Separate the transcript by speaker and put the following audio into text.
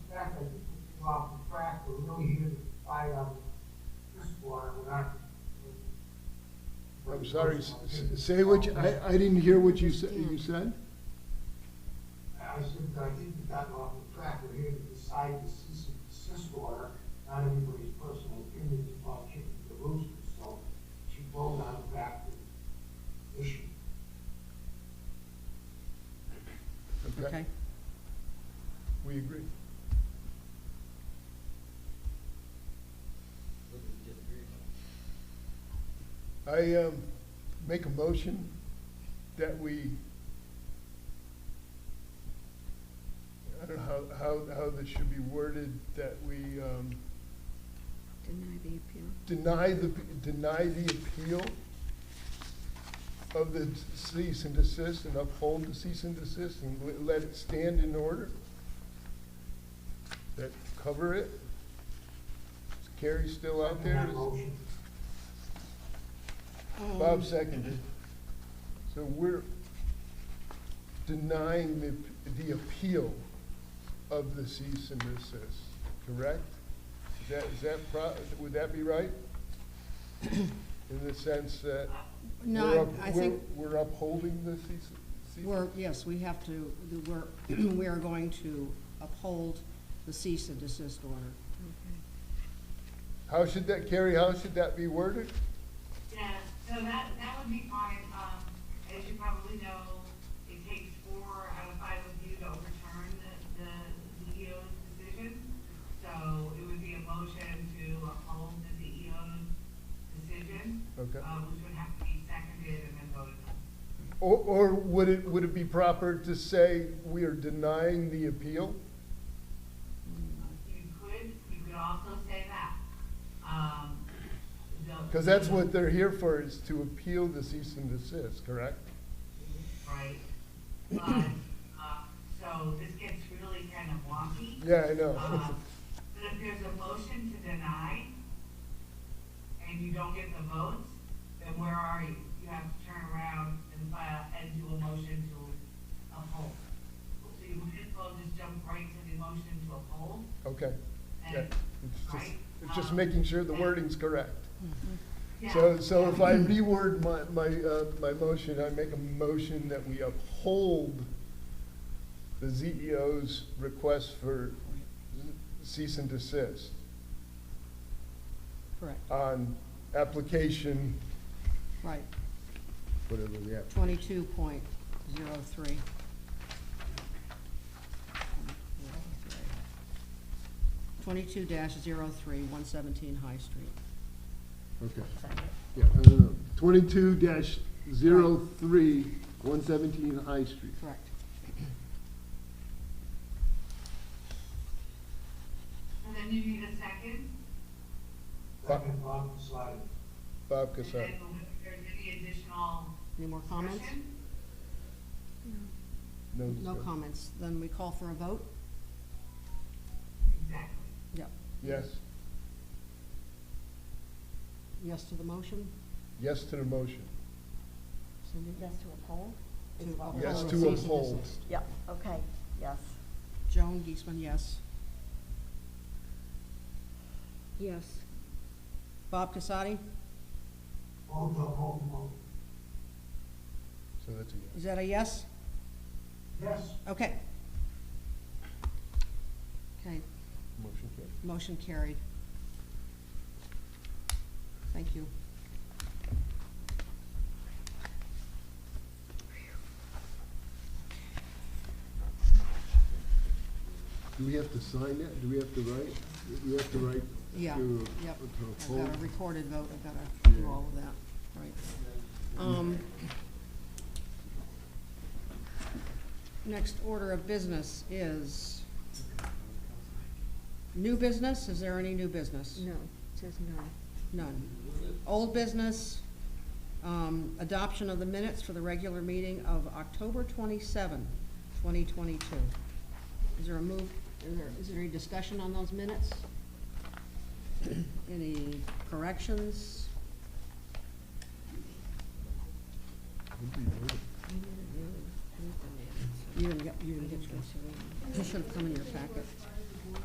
Speaker 1: off the track, but we don't hear the fire on this water, we're not.
Speaker 2: I'm sorry, s- s- say what, you- I, I didn't hear what you said, you said?
Speaker 1: I said, that I think we got off the track, we're here to decide the cis, cis water, not anybody's personal opinions about chicken the rooster, so she rolled on back to the issue.
Speaker 3: Okay.
Speaker 2: We agree. I, um, make a motion that we, I don't know how, how, how this should be worded, that we, um,
Speaker 3: Deny the appeal.
Speaker 2: deny the, deny the appeal of the cease and desist and uphold the cease and desist and le- let it stand in order? That cover it? Is Carrie still out there?
Speaker 1: That motion.
Speaker 4: Um,
Speaker 2: Bob seconded. So we're denying the, the appeal of the cease and desist, correct? Is that, is that pro, would that be right? In the sense that we're
Speaker 4: No,
Speaker 2: up-
Speaker 4: I I
Speaker 2: we're-
Speaker 4: think
Speaker 2: We're upholding the cease, cease?
Speaker 4: we're, yes, we have to, we're, we are going to uphold the cease and desist order.
Speaker 2: How should that, Carrie, how should that be worded?
Speaker 5: Yeah, so that, that would be fine, um, as you probably know, it takes four out of five of you to overturn the, the DEO's decision. So it would be a motion to uphold the DEO's decision,
Speaker 2: Okay.
Speaker 5: uh, which would have to be seconded and then voted on.
Speaker 2: Or, or would it, would it be proper to say we are denying the appeal?
Speaker 5: You could, you could also say that, um, the.
Speaker 2: Because that's what they're here for, is to appeal the cease and desist, correct?
Speaker 5: Right, but, uh, so this gets really kind of wonky.
Speaker 2: Yeah, I know.
Speaker 5: Uh, But if there's a motion to deny, and you don't get the votes, then where are you? You have to turn around and file, and do a motion to uphold. So you might as well just jump right to the motion to uphold,
Speaker 2: Okay, yeah.
Speaker 5: and,
Speaker 2: It's just,
Speaker 5: right?
Speaker 2: it's just
Speaker 5: Um,
Speaker 2: making sure the
Speaker 5: and-
Speaker 2: wording's correct.
Speaker 5: Yeah.
Speaker 2: So, so if I reword my, my, uh, my motion, I make a motion that we uphold the ZEO's request for cease and desist
Speaker 4: Correct,
Speaker 2: on application,
Speaker 4: right,
Speaker 2: whatever the app,
Speaker 4: twenty-two point zero three. Twenty-two dash zero three, one seventeen High Street.
Speaker 2: okay. Yeah, no, no, no, twenty-two dash zero three, one seventeen High Street.
Speaker 4: Correct.
Speaker 5: And then you need a second,
Speaker 1: Second, Bob decided.
Speaker 2: Bob
Speaker 5: and
Speaker 2: Casar.
Speaker 5: then if there's any additional
Speaker 4: Any more comments?
Speaker 5: discussion,
Speaker 4: No
Speaker 2: sir.
Speaker 4: comments. Then we call for a vote?
Speaker 5: exactly.
Speaker 4: Yep.
Speaker 2: Yes,
Speaker 4: Yes to the motion?
Speaker 2: yes to the motion.
Speaker 4: Cindy?
Speaker 6: Yes, to uphold?
Speaker 4: To
Speaker 6: It's
Speaker 4: uphold
Speaker 2: Yes
Speaker 4: the
Speaker 2: to
Speaker 4: cease and
Speaker 2: uphold.
Speaker 4: desist.
Speaker 6: Yeah, okay, yes.
Speaker 4: Joan Geisman, yes.
Speaker 3: Yes.
Speaker 4: Bob Casati,
Speaker 1: Hold the, hold, hold.
Speaker 2: So that's a yes.
Speaker 4: is that a yes?
Speaker 1: Yes,
Speaker 4: Okay. Okay,
Speaker 2: Motion carried.
Speaker 4: motion carried. Thank you.
Speaker 2: Do we have to sign that? Do we have to write? We have to write
Speaker 4: Yeah,
Speaker 2: to
Speaker 4: yep.
Speaker 2: to
Speaker 4: I've
Speaker 2: uphold?
Speaker 4: got a recorded vote, I've got to do all of that, right. Um, Next order of business is new business, is there any new business?
Speaker 3: No, it says no.
Speaker 4: None. Old business, um, adoption of the minutes for the regular meeting of October 27, 2022. Is there a move, is there, is there any discussion on those minutes? Any corrections? You didn't get, you didn't get yours. You should have come in your packet.